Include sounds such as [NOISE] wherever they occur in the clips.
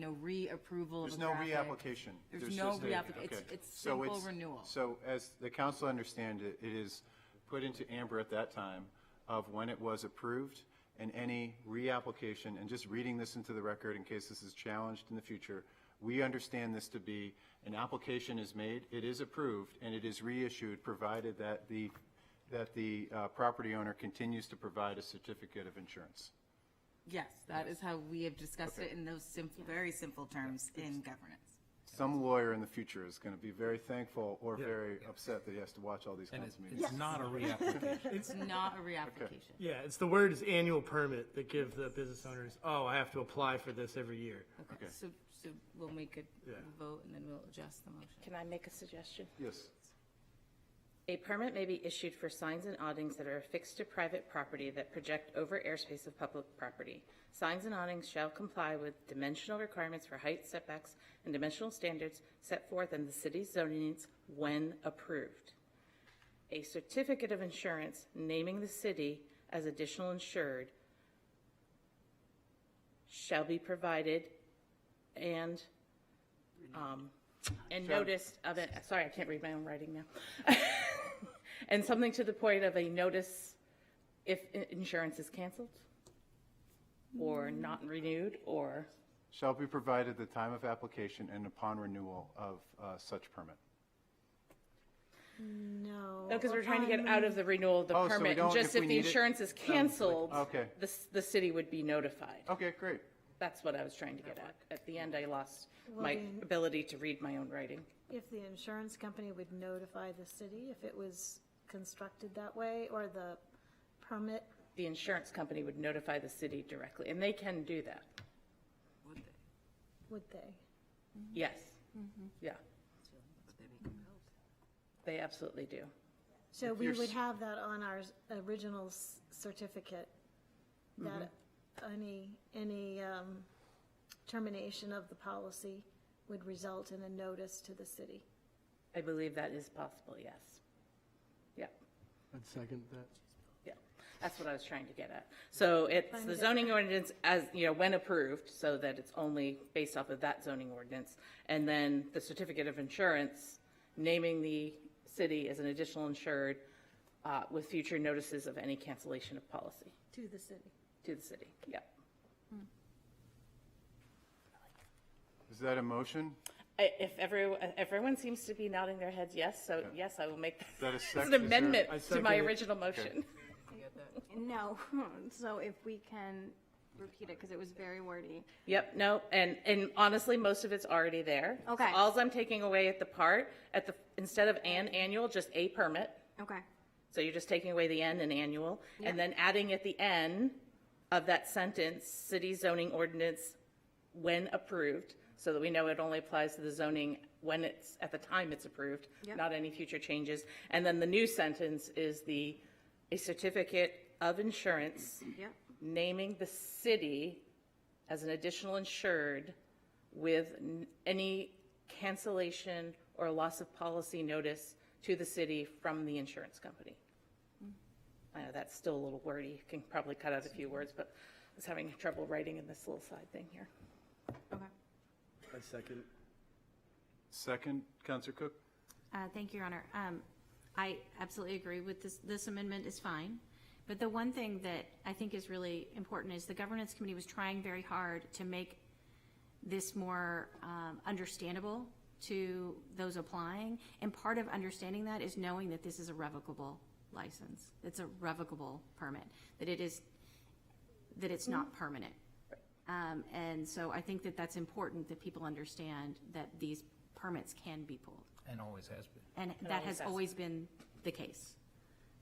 you know, reapproval of a There's no graphic. reapplication. There's no just a- reapplication. It's, okay. it's So simple renewal. So as the council understand it, it is put into Amber at that time of when it was approved and any reapplication, and just reading this into the record in case this is challenged in the future, we understand this to be, an application is made, it is approved, and it is reissued, provided that the, that the uh, property owner continues to provide a certificate of insurance. Yes, that is how we have discussed it in those simple, very simple terms in governance. Some lawyer in the future is going to be very thankful or very upset that he has to watch all these council meetings. [LAUGHS] It's not a reapplication. It's not a reapplication. Yeah, it's the word is annual permit that give the business owners, oh, I have to apply for this every year. Okay, so, so we'll make a vote and then we'll adjust the motion. Can I make a suggestion? Yes. A permit may be issued for signs and awnings that are affixed to private property that project over airspace of public property. Signs and awnings shall comply with dimensional requirements for height setbacks and dimensional standards set forth in the city's zoning needs when approved. A certificate of insurance naming the city as additional insured shall be provided and, um, and noticed of it, sorry, I can't read my own writing now. And something to the point of a notice if i- insurance is canceled or not renewed or, Shall be provided the time of application and upon renewal of uh, such permit. No. no, because we're trying to get out of the renewal of the Oh, so we permit. don't- And just if we if the need it- insurance is canceled, okay. the, s- the city would be notified. Okay, great. That's what I was trying to get at. At the end, I lost my ability to read my own writing. If the insurance company would notify the city if it was constructed that way, or the permit, The insurance company would notify the city directly, and they can do that. would they? Yes. Yeah. They absolutely do. So we you're would s- have that on our s- original s- certificate, that Mm-hmm. any, any um, termination of the policy would result in a notice to the city. I believe that is possible, yes. Yep. I'd second that. Yeah, that's what I was trying to get at. So it's the zoning ordinance as, you know, when approved, so that it's only based off of that zoning ordinance. And then the certificate of insurance, naming the city as an additional insured uh, with future notices of any cancellation of policy To the city. to the city. Yeah. Is that a motion? I- If everyone, everyone seems to be nodding their heads yes, so yes, I will make that a [LAUGHS] this sec- is an there- amendment I to second my it. original motion. No, [LAUGHS] so if we can repeat it, because it was very wordy. Yep, no, and, and honestly, most of it's already there. Okay. Alls I'm taking away at the part, at the, instead of an annual, just a permit. Okay, So you're just taking away the N and annual, and then adding at the end of that sentence, city zoning ordinance when approved, so that we know it only applies to the zoning when it's, at the time it's approved, Yep. not any future changes. And then the new sentence is the, a certificate of insurance yep, naming the city as an additional insured with n- any cancellation or loss of policy notice to the city from the insurance company. I know that's still a little wordy, You can probably cut out a few words, but I was having trouble writing in this little side thing here. okay. I second. Second, Counselor Cook? Uh, Thank you, Your Honor. Um, I absolutely agree with this, this amendment is fine. But the one thing that I think is really important is the governance committee was trying very hard to make this more um, understandable to those applying. And part of understanding that is knowing that this is a revocable license. It's a revocable permit, that it is, that it's not permanent. Um, And so I think that that's important, that people understand that these permits can be pulled. And always has been. And that has has. always been the case.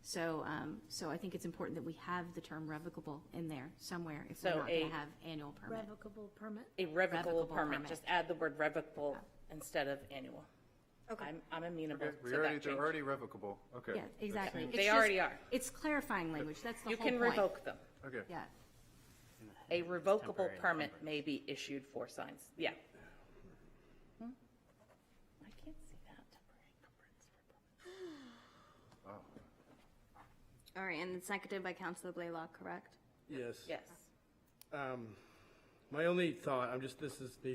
So, um, so I think it's important that we have the term revocable in there somewhere if we're So not going a- to have annual permit. Revocable permit? A revocable Revocable permit, permit. just add the word revocable instead of annual. I'm, I'm amenable We to already, that they're change. already revocable. Okay. Yeah, exactly. It's They just- already are. It's clarifying language, that's the You whole point. can revoke them. Okay. Yeah, A revocable permit may be issued for signs, yeah. Hmm? I can't see that. All right, and it's seconded by Counselor Blaylock, correct? Yes. Yes. Um, my only thought, I'm just, this is the